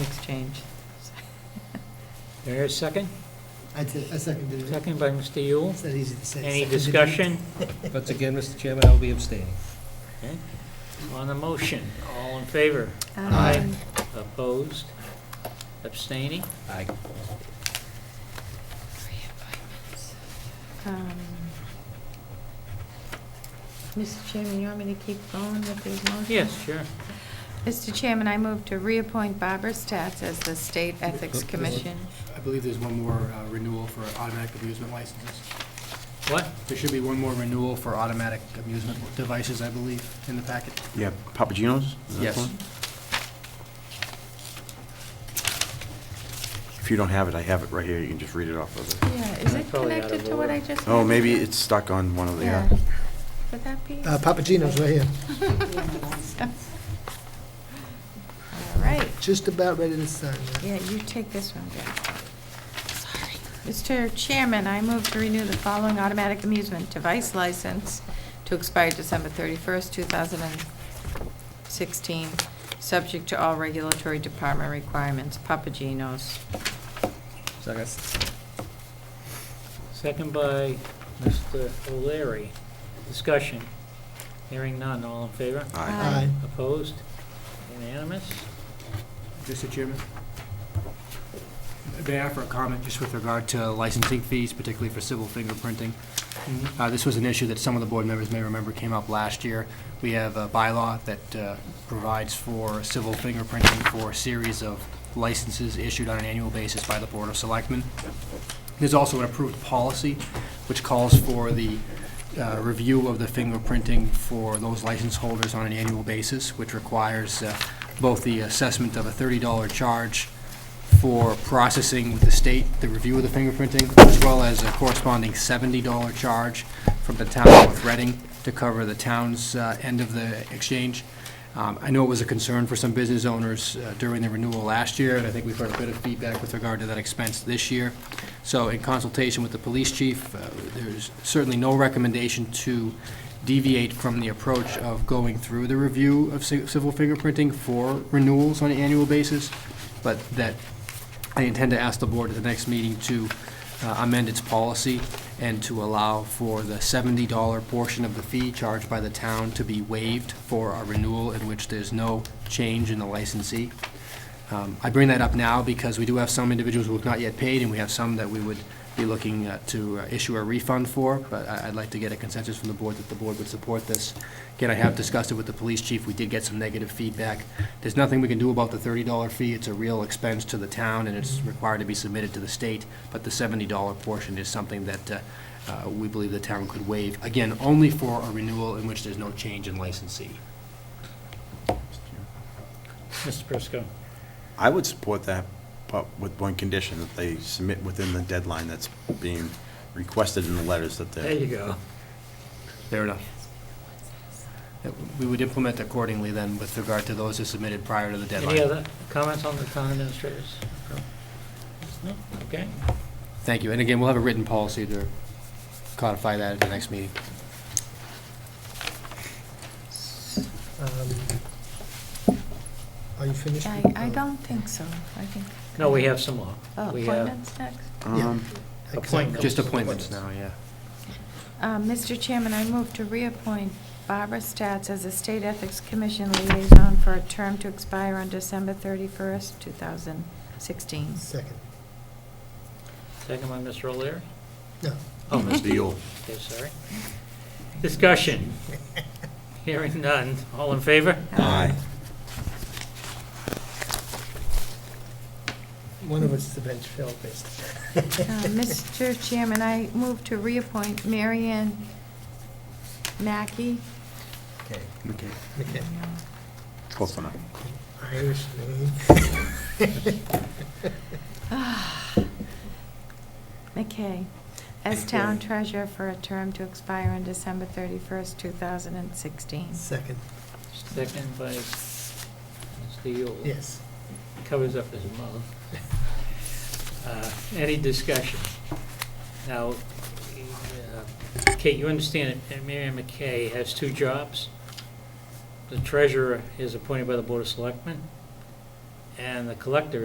change. Do I hear a second? I t- I seconded it. Second by Mr. Yule. It's not easy to say. Any Seconded it. discussion Once again, Mr. Chairman, I'll be abstaining. on the motion? All in favor? Aye. Um, Opposed? Abstaining? Aye. um, Mr. Chairman, you want me to keep going with these motions? Yes, sure. Mr. Chairman, I move to reappoint Barbara Stats as the State Ethics Commission. I believe there's one more uh, renewal for automatic amusement licenses. What? There should be one more renewal for automatic amusement devices, I believe, in the packet. Yeah, Papagenos? is that the Yes. one? If you don't have it, I have it right here, you can just read it off of it. Yeah, is I it probably out connected of to what I order. just? Oh, had? maybe it's stuck on one of the, Yeah. uh, Would that be? Uh, Papagino's right here, All right. just about ready to sign that. Yeah, you take this one, Jack. Sorry. Mr. Chairman, I move to renew the following automatic amusement device license to expire December 31st, 2016, subject to all regulatory department requirements. Papagenos. Second. Second by Mr. O'Leary. Discussion. Hearing none. All in favor? aye. Aye. Aye. Opposed? Unanimous? Mr. Chairman? May I offer a comment just with regard to licensing fees, particularly for civil fingerprinting? Mm-hmm. Uh, This was an issue that some of the board members may remember came up last year. We have a bylaw that uh, provides for civil fingerprinting for a series of licenses issued on an annual basis by the Board of Selectmen. There's also an approved policy which calls for the uh, review of the fingerprinting for those license holders on an annual basis, which requires uh, both the assessment of a $30 charge for processing with the state, the review of the fingerprinting, as well as a corresponding $70 charge from the town of Reading to cover the town's uh, end of the exchange. Um, I know it was a concern for some business owners uh, during the renewal last year, and I think we've heard a bit of feedback with regard to that expense this year. So in consultation with the police chief, uh, there's certainly no recommendation to deviate from the approach of going through the review of ci- civil fingerprinting for renewals on an annual basis, but that I intend to ask the board at the next meeting to uh, amend its policy and to allow for the $70 portion of the fee charged by the town to be waived for a renewal in which there's no change in the licensee. Um, I bring that up now because we do have some individuals who have not yet paid, and we have some that we would be looking uh, to uh, issue a refund for, but I- I'd like to get a consensus from the board that the board would support this. Again, I have discussed it with the police chief, we did get some negative feedback. There's nothing we can do about the thirty-dollar fee, it's a real expense to the town, and it's required to be submitted to the state, but the seventy-dollar portion is something that uh, uh, we believe the town could waive, again, only for a renewal in which there's no change in licensee. Mr. Prisco. I would support that, but with one condition, that they submit within the deadline that's being requested in the letters that There they're, you go. Fair enough. That We would implement accordingly then with regard to those who submitted prior to the Any deadline. other comments on the town administrators? No? Okay. Thank you. And again, we'll have a written policy to codify that at the next meeting. Um, Are you finished? Uh, I, I don't think so. I think. No, we have some more. Oh, We have- Appointments next. Yeah. um, Appointment. Just appointments now, yeah. Uh, Mr. Chairman, I move to reappoint Barbara Stats as a State Ethics Commission liaison for a term to expire on December 31st, 2016. Second. Second by Mr. O'Leary. No. Oh, Mr. Mr. Yule. Okay, sorry. Discussion. Hearing none. All in favor? Aye. One of us is the bench fell based. Uh, Mr. Chairman, I move to reappoint Marianne Mackey. Okay. Okay, Okay. close enough. Irish name. McKay, as Town Treasurer for a term to expire on December 31st, 2016. Second, Second by Mr. Yule. yes. Covers up his mouth. Uh, Any discussion? Now, uh, Kate, you understand that Miriam McKay has two jobs. The treasurer is appointed by the Board of Selectmen, and the collector